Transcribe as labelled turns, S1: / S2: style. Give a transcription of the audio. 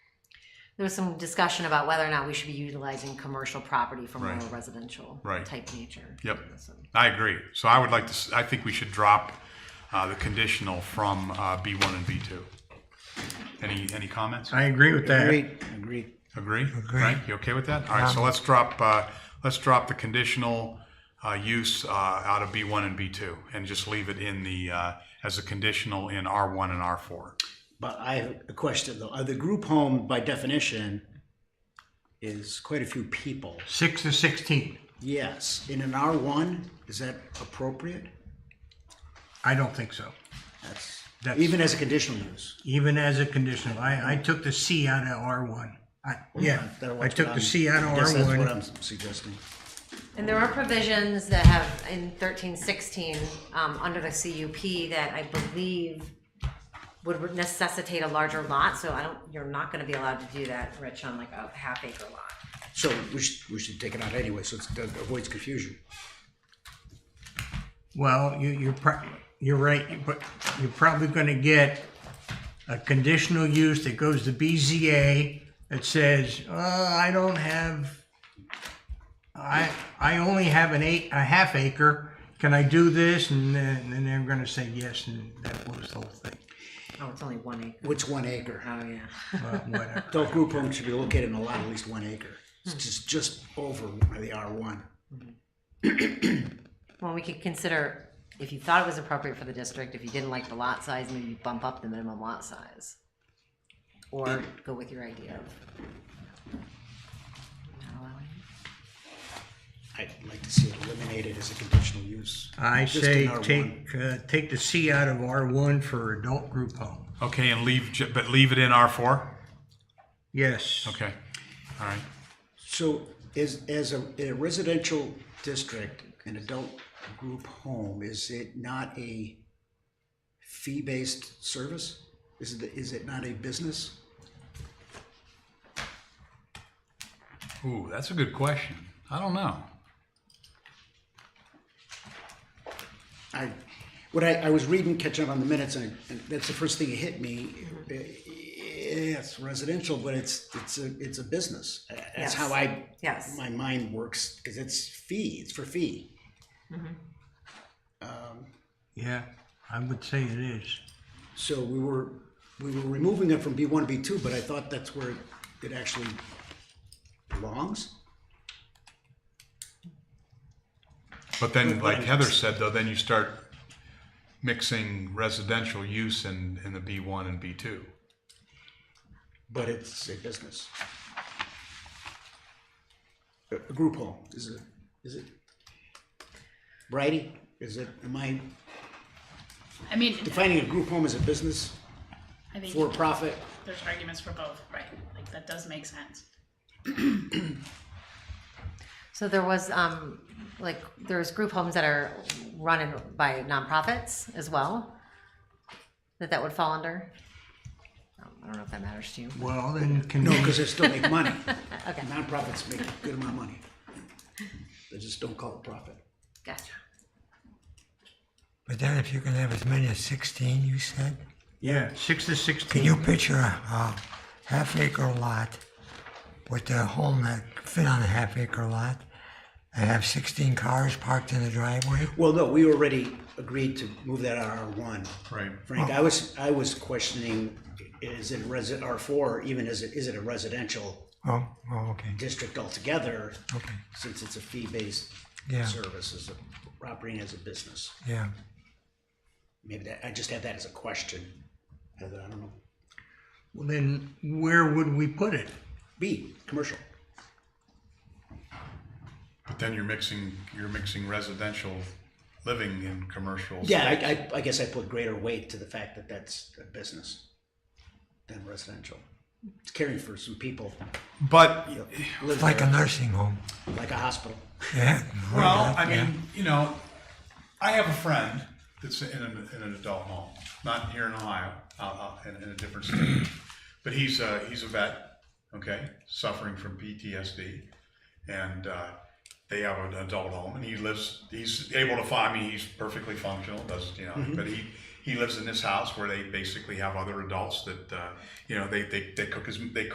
S1: there was some discussion about whether or not we should be utilizing commercial property for more
S2: Right.
S1: residential
S2: Right.
S1: type nature.
S2: Yep.
S1: So-
S2: I agree. So I would like to, s- I think we should drop uh, the conditional from uh, B1 and B2. Any, any comments?
S3: I agree with that.
S4: Agreed, agreed.
S2: Agree? Frank, you okay with that? All right, so let's drop, uh, let's drop the conditional uh, use uh, out of B1 and B2 and just leave it in the, uh, as a conditional in R1 and R4.
S4: But I have a question though. Uh, The group home by definition is quite a few people.
S3: Six to sixteen.
S4: Yes, in an R1, is that appropriate?
S3: I don't think so.
S4: That's,
S3: That's-
S4: even as a conditional use.
S3: Even as a conditional, I, I took the C out of R one. I, yeah,
S4: That-
S3: I took
S4: that's
S3: the
S4: what
S3: C out
S4: I'm-
S3: of
S4: I guess
S3: R
S4: That's what
S3: one.
S4: I'm suggesting.
S1: And there are provisions that have in thirteen sixteen, um, under the CUP that I believe would necessitate a larger lot, so I don't, you're not gonna be allowed to do that, Rich, on like a half acre lot.
S4: So we should, we should take it out anyway, so it's- that avoids confusion.
S3: Well, you, you're pro- you're right, but you're probably gonna get a conditional use that goes to BZA that says, uh, I don't have, I, I only have an eight, a half acre. Can I do this? And then, and they're gonna say yes, and that blows the whole thing.
S1: Oh, it's only one acre,
S4: What's one acre?
S1: oh, yeah.
S3: Well, whatever.
S4: Adult group home should be located in a lot at least one acre. It's just, just over the R1.
S1: Well, we could consider, if you thought it was appropriate for the district, if you didn't like the lot size, maybe you bump up the minimum lot size. Or go with your idea of. not allowing it.
S4: I'd like to see it eliminated as a conditional use.
S3: I
S4: Just
S3: say
S4: in R1.
S3: take, uh, take the C out of R1 for adult group home.
S2: Okay, and leave, j- but leave it in R4?
S3: Yes.
S2: Okay, all right.
S4: So is, as a, in a residential district, an adult group home, is it not a fee-based service? Is it, is it not a business?
S2: Ooh, that's a good question. I don't know.
S4: I, what I, I was reading, catching up on the minutes, and, and that's the first thing that hit me. Yeah, It's residential, but it's, it's a, it's a business. That's how I,
S1: Yes.
S4: my mind works, because it's fee, it's for fee.
S3: Yeah, I would say it is.
S4: So we were, we were removing it from B one, B two, but I thought that's where it actually belongs.
S2: But then, like Heather said, though, then you start mixing residential use in, in the B1 and B2.
S4: But it's a business. A a group home, is it, is it? Righty, is it, am I
S5: I mean,
S4: defining a group home as a business,
S5: I think
S4: for profit?
S5: there's arguments for both, right? Like that does make sense.
S1: So there was, um, like, there's group homes that are run in by nonprofits as well, that that would fall under. Um, I don't know if that matters to you.
S3: Well, then can
S4: No,
S3: we,
S4: because they still make money.
S1: Okay.
S4: Nonprofits make a good amount of money. They just don't call it profit.
S1: Gotcha.
S6: But then if you can have as many as 16, you said,
S3: yeah, six to
S6: can
S3: 16.
S6: you picture a, a half acre lot with a home that fit on a half acre lot and have 16 cars parked in the driveway?
S4: Well, no, we already agreed to move that out of R1.
S2: Right.
S4: Frank, I was, I was questioning, is it resi, R4, even is it, is it a residential
S6: Oh, oh, okay,
S4: district altogether?
S6: okay,
S4: Since it's a fee-based
S6: Yeah.
S4: service, as a, operating as a business.
S6: yeah.
S4: Maybe that, I just had that as a question. I don't know.
S3: Well, then where would we put it?
S4: B, commercial.
S2: But then you're mixing you're mixing residential living and commercial.
S4: Yeah, I, I, I guess I put greater weight to the fact that that's a business than residential. It's caring for some people,
S2: But
S4: that live
S6: Like a
S4: there,
S6: nursing home.
S4: like a hospital.
S6: Yeah.
S2: well, I
S6: yeah.
S2: mean, you know, I have a friend that's in an, in an adult home, not here in Ohio, out, out in, in a different state, but he's a, he's a vet, okay, suffering from PTSD, and uh, they have an adult home, and he lives. He's able to find me. He's perfectly functional. Does you know? But he he lives in this house where they basically have other adults that uh, you know they they, they cook his they. Cook